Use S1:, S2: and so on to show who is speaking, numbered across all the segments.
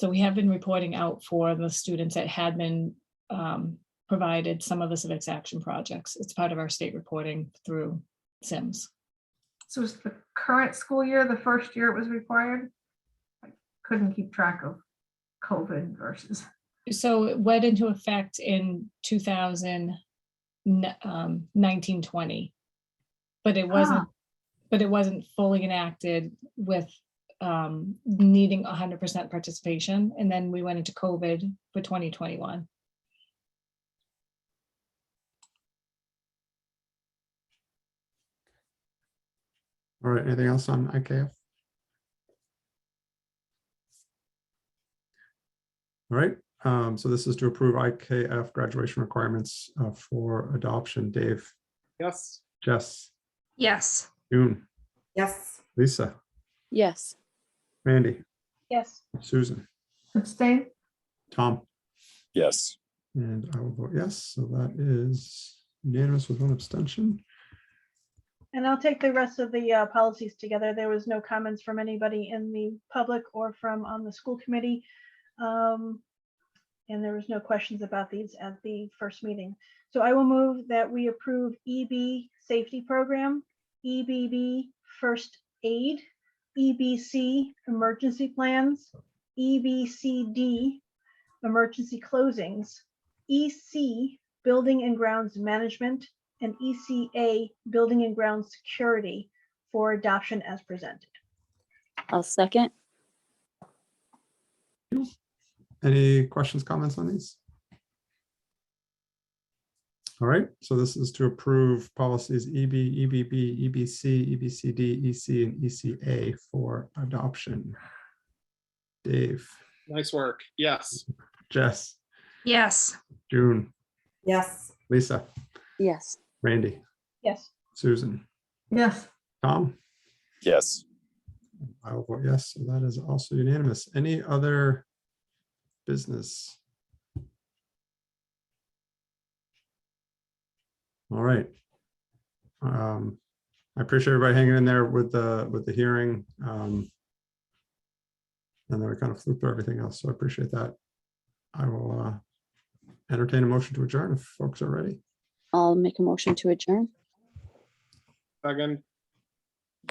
S1: So we have been reporting out for the students that had been um, provided some of the civics action projects. It's part of our state reporting through Sims.
S2: So is the current school year, the first year it was required? I Couldn't keep track of COVID versus,
S1: So it went into effect in 2000, um, 19, 20. But it wasn't, but it wasn't fully enacted with um, needing 100% participation. And then we went into COVID for 2021.
S3: All right, anything else on IKF? All right, um, so this is to approve IKF graduation requirements uh, for adoption. Dave,
S4: Yes.
S3: Jess,
S5: Yes.
S3: June,
S6: yes,
S3: Lisa,
S7: yes,
S3: Mandy,
S5: Yes.
S3: Susan,
S2: abstain?
S3: Tom,
S4: Yes.
S3: and I will vote yes. So that is unanimous with one abstention.
S8: And I'll take the rest of the uh, policies together. There was no comments from anybody in the public or from on the school committee. Um, And there was no questions about these at the first meeting. So I will move that we approve EB Safety Program, EBB First Aid, EBC Emergency Plans, E EBCD Emergency Closings, EC Building and Grounds Management, and ECA E Building and Ground Security for adoption as presented.
S7: I'll second.
S3: Any questions, comments on these? All right, so this is to approve policies E EB, EBB, EBC, EBCD, EC, E and ECA for adoption. Dave,
S4: Nice work. Yes.
S3: Jess,
S5: Yes.
S3: June,
S6: yes,
S3: Lisa,
S7: Yes,
S3: Randy,
S8: Yes,
S3: Susan,
S2: Yes,
S3: Tom,
S4: Yes.
S3: I will vote yes, so that is also unanimous. Any other business? All right. Um, I appreciate everybody hanging in there with the, with the hearing. um, And then we kind of flew through everything else, so I appreciate that. I will uh, entertain a motion to adjourn if folks are ready.
S7: I'll make a motion to adjourn.
S4: Second.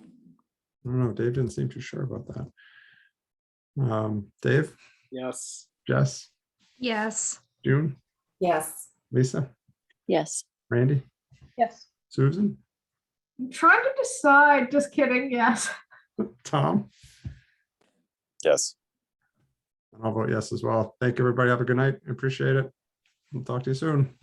S3: I don't know, Dave didn't seem too sure about that. Um, Dave,
S4: Yes.
S3: Jess,
S5: Yes.
S3: June,
S6: yes.
S3: Lisa,
S7: Yes,
S3: Randy?
S8: yes.
S3: Susan,
S2: I'm trying to decide, just kidding, yes.
S3: Tom,
S4: Yes.
S3: and I'll vote yes as well. Thank you, everybody. Have a good night. Appreciate it. We'll talk to you soon.